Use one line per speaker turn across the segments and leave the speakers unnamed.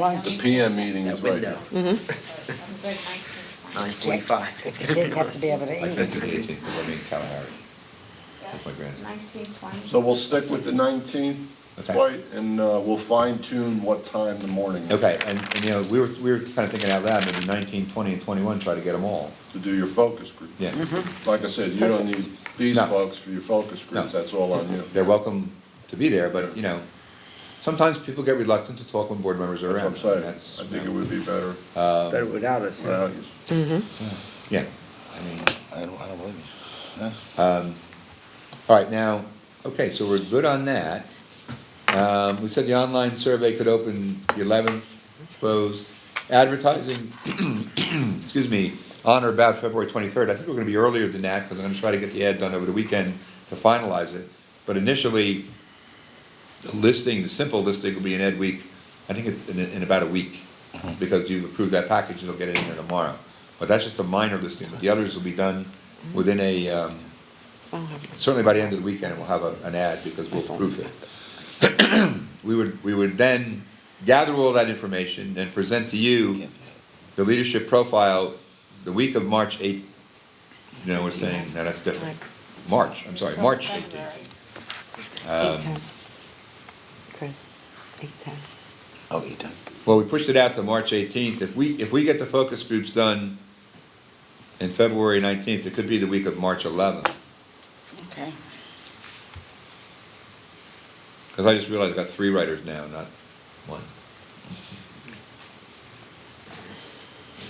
The PM meeting is right here.
Nine forty-five.
It's the kids have to be able to eat.
That's the eighteenth, I mean, Kalahari. That's my grandson.
Nineteen twenty.
So we'll stick with the 19th,
Okay.
Dwight, and uh, we'll fine tune what time the morning is
Okay, and, and you know, we were, we were kind of thinking out loud, maybe nineteen, twenty, and twenty-one, try to get them all.
to do your focus group.
Yeah,
Like I said, you don't need these
No.
folks for your focus groups,
No.
that's all on you.
they're welcome to be there, but you know, sometimes people get reluctant to talk when board members are
That's
around.
what I'm saying.
and
I
that's,
think
you
it
know,
would be better
Better without us.
without you.
Yeah.
I mean, I don't, I don't believe you. Huh?
All right, now, okay, so we're good on that. Um, we said the online survey could open the eleventh, closed. Advertising, excuse me, on or about February twenty-third. I think we're gonna be earlier than that, because I'm gonna try to get the ad done over the weekend to finalize it. But initially, the listing, the simple listing will be in Ed Week, I think it's in, in about a week, because you approve that package, you'll get it in there tomorrow. But that's just a minor listing, but the others will be done within a, um, certainly by the end of the weekend, we'll have a, an ad because we'll proof it. We would, we would then gather all that information and present to you the leadership profile the week of March eight. You know, we're saying, no, that's different. March, I'm sorry, March Um, eighteenth.
um,
Eight ten. Chris, eight ten.
Oh, you done?
Well, we pushed it out to March eighteenth. If we, if we get the focus groups done in February nineteenth, it could be the week of March eleventh.
Okay.
Because I just realized I've got three writers now, not one.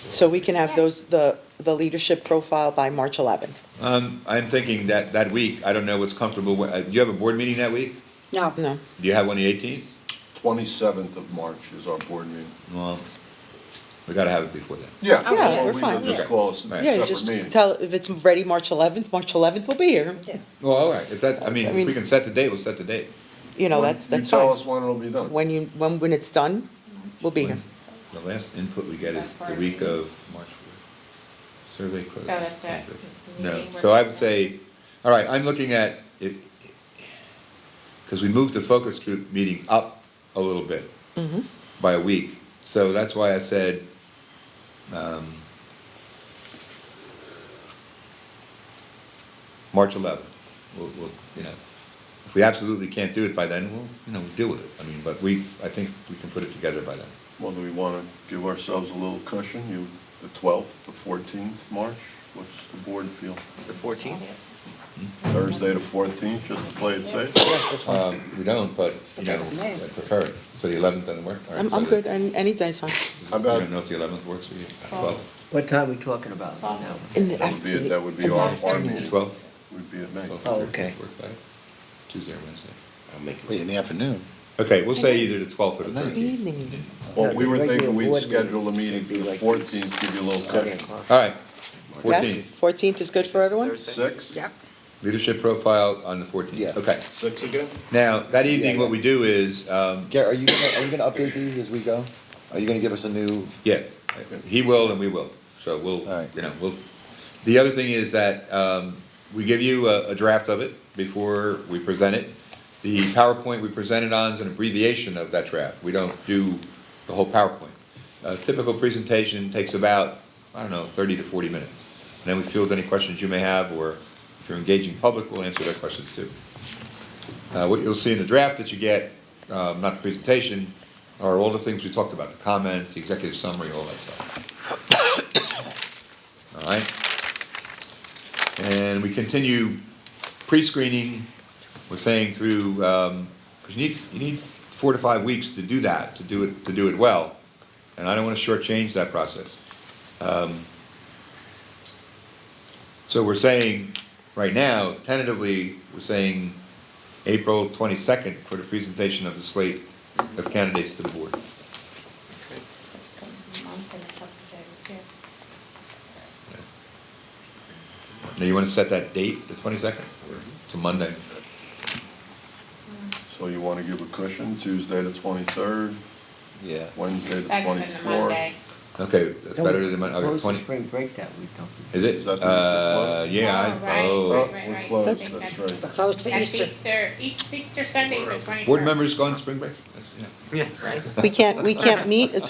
So we can have those, the, the leadership profile by March 11th.
Oh.
Um, I'm thinking that, that week, I don't know what's comfortable, with- uh, do you have a board meeting that week?
No.
No,
Do you have one the eighteenth?
27th of March is our board meeting.
Well, we gotta have it before then.
Yeah.
Okay. Oh, Yeah,
or
we're
we
fine,
could just
yeah.
call it a
yeah,
separate
just
meeting.
tell, if it's ready March 11th, March 11th, we'll be here.
Well, all right, if that, I mean,
I
if
mean-
we can set the date, we'll set the date.
You know, that's,
You
that's
tell
fine.
us when it'll be done.
When you, when, when it's done, we'll be here.
The last input we get is the week of March. fourth. Survey
So
closed.
that's it.
No,
Meeting
so I would
work.
say, all right, I'm looking at, if, because we moved the focus group meetings up a little bit
Mm-hmm.
by a week, so that's why I said, um, March eleventh, we'll, we'll, you know, if we absolutely can't do it by then, we'll, you know, we'll deal with it. I mean, but we, I think we can put it together by then.
Well, do we want to give ourselves a little cushion, you, the 12th, the 14th, March? What's the board feel?
The fourteenth?
Thursday the 14th, just to play it safe?
Um, we don't, but, you know, I prefer it. So the eleventh doesn't work? All right,
I'm,
so
I'm
the-
good, and any day's fine.
How
I
about-
don't know if the eleventh works for you. Twelfth?
What time are we talking about now?
In the
That would be,
afternoon.
that would be our, our meeting,
Twelfth?
would be at night.
Twelfth
Oh,
or
okay.
thirteenth work better? Tuesday or Wednesday?
I'll make it. Wait, in the afternoon?
Okay, we'll say either the twelfth or the thirteenth.
Evening meeting.
Well, we were thinking we'd
Regular board
schedule a meeting
meeting
for
would be
the
like-
fourteenth, give you a little
Seven
session.
o'clock.
All right,
Yes,
fourteenth.
14th is good for everyone?
Six?
Yep.
Leadership profile on the fourteenth.
Yeah.
Okay.
Six again?
Now, that evening,
yeah.
what we do is, um,
Garrett, are you, gonna- are you gonna update these as we go? Are you gonna give us a new?
yeah, he will and we will. So we'll,
All right.
you know, we'll, the other thing is that, um, we give you a, a draft of it before we present it. The PowerPoint we presented on is an abbreviation of that draft. We don't do the whole PowerPoint. A typical presentation takes about, I don't know, thirty to forty minutes. And then we field any questions you may have, or if you're engaging public, we'll answer their questions too. Uh, what you'll see in the draft that you get, um, not the presentation, are all the things we talked about, the comments, the executive summary, all that stuff. All right? And we continue pre-screening, we're saying through, because you need, you need four to five weeks to do that, to do it, to do it well. And I don't want to shortchange that process. Um, So we're saying, right now, tentatively, we're saying April twenty-second for the presentation of the slate of candidates to the board.
Month and a couple days, yeah.
Now, you wanna set that date, the twenty-second, or it's a Monday?
So you want to give a cushion, Tuesday the twenty-third,
Yeah.
Wednesday the
Better than the
twenty-fourth?
Monday.
Okay, that's better than, my- okay,
Close the
twenty,
spring break that week, don't we?
is
Is
it?
that the-
Uh, yeah,
Oh,
I,
right,
oh.
right, right.
We're closed,
That's-
that's right.
We're closed for
That's
Easter.
Easter, Easter Sunday, the twenty-first.
Board members go on spring break? That's- yeah.
Yeah, right.
We can't, we can't meet